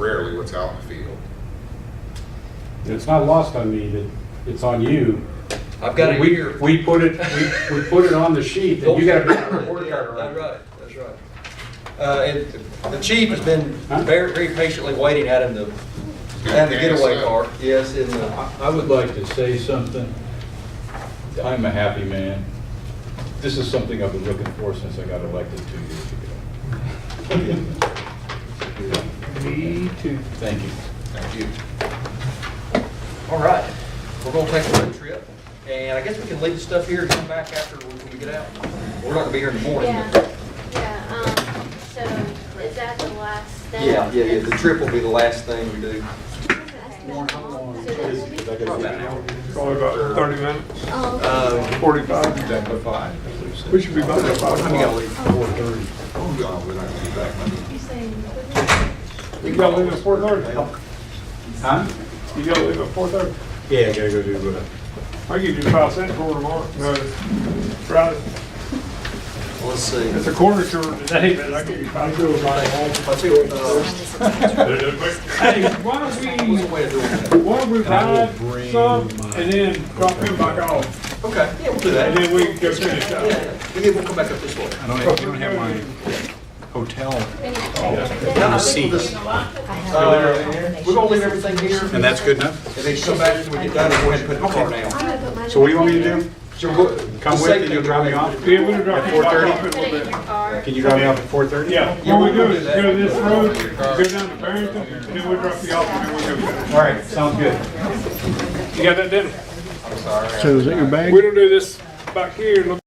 rarely what's out in the field. And it's not lost on me that it's on you. I've got it We- here. We put it, we, we put it on the sheet that you gotta bring a report card That's around. right, that's right. Uh, and the chief has been Huh? very, very patiently waiting at him to, at the getaway car. Yes, in the, I I would like to say something. I'm a happy man. This is something I've been looking for since I got elected two years ago. Me too. Thank you. Thank you. all right. We're gonna take a road trip, and I guess we can leave the stuff here and come back after we we get out. We're not gonna be here in the morning. but- Yeah, yeah, um, so is that the last step? Yeah, yeah, yeah, the trip will be the last thing we do. So that will be- About an hour. Probably about 30 minutes, Oh, okay. Um, Uh, 45. Ten to five. We should be back at 5 I'm gonna o'clock. leave. Oh, no, we're not gonna be back Monday. You gotta leave at 4:30. Huh? You gotta leave at 4:30. Yeah, I gotta go do uh, what? I'll give you five cents for tomorrow. No, Friday. Let's see. It's a quarter to today, but I'll give you five cents. Let's see, uh, Hey, why don't what's we, the way of doing that? why don't we buy some and then drop them back off? Okay, yeah, we'll do that. And then we can go finish Yeah, up. yeah, yeah, we'll come back up this way. I don't have, you don't have my hotel, No, I think we'll just- Uh, We're gonna leave everything here. and that's good enough? And then come back when we get done and go ahead and put the car down. I'm gonna put mine So what do you want me in to do? So we'll- Come the with, safe and you'll thing- drop me off? Yeah, we'll drop you back off in a Put little it in bit. your car. Can you drop me off at four thirty? Yeah, what we do is go this road, go down to Barrington, and then we drop you off, and then we go. All right, sounds good. You got that, Dennis? I'm sorry. So is that your bag? We don't do this back here, no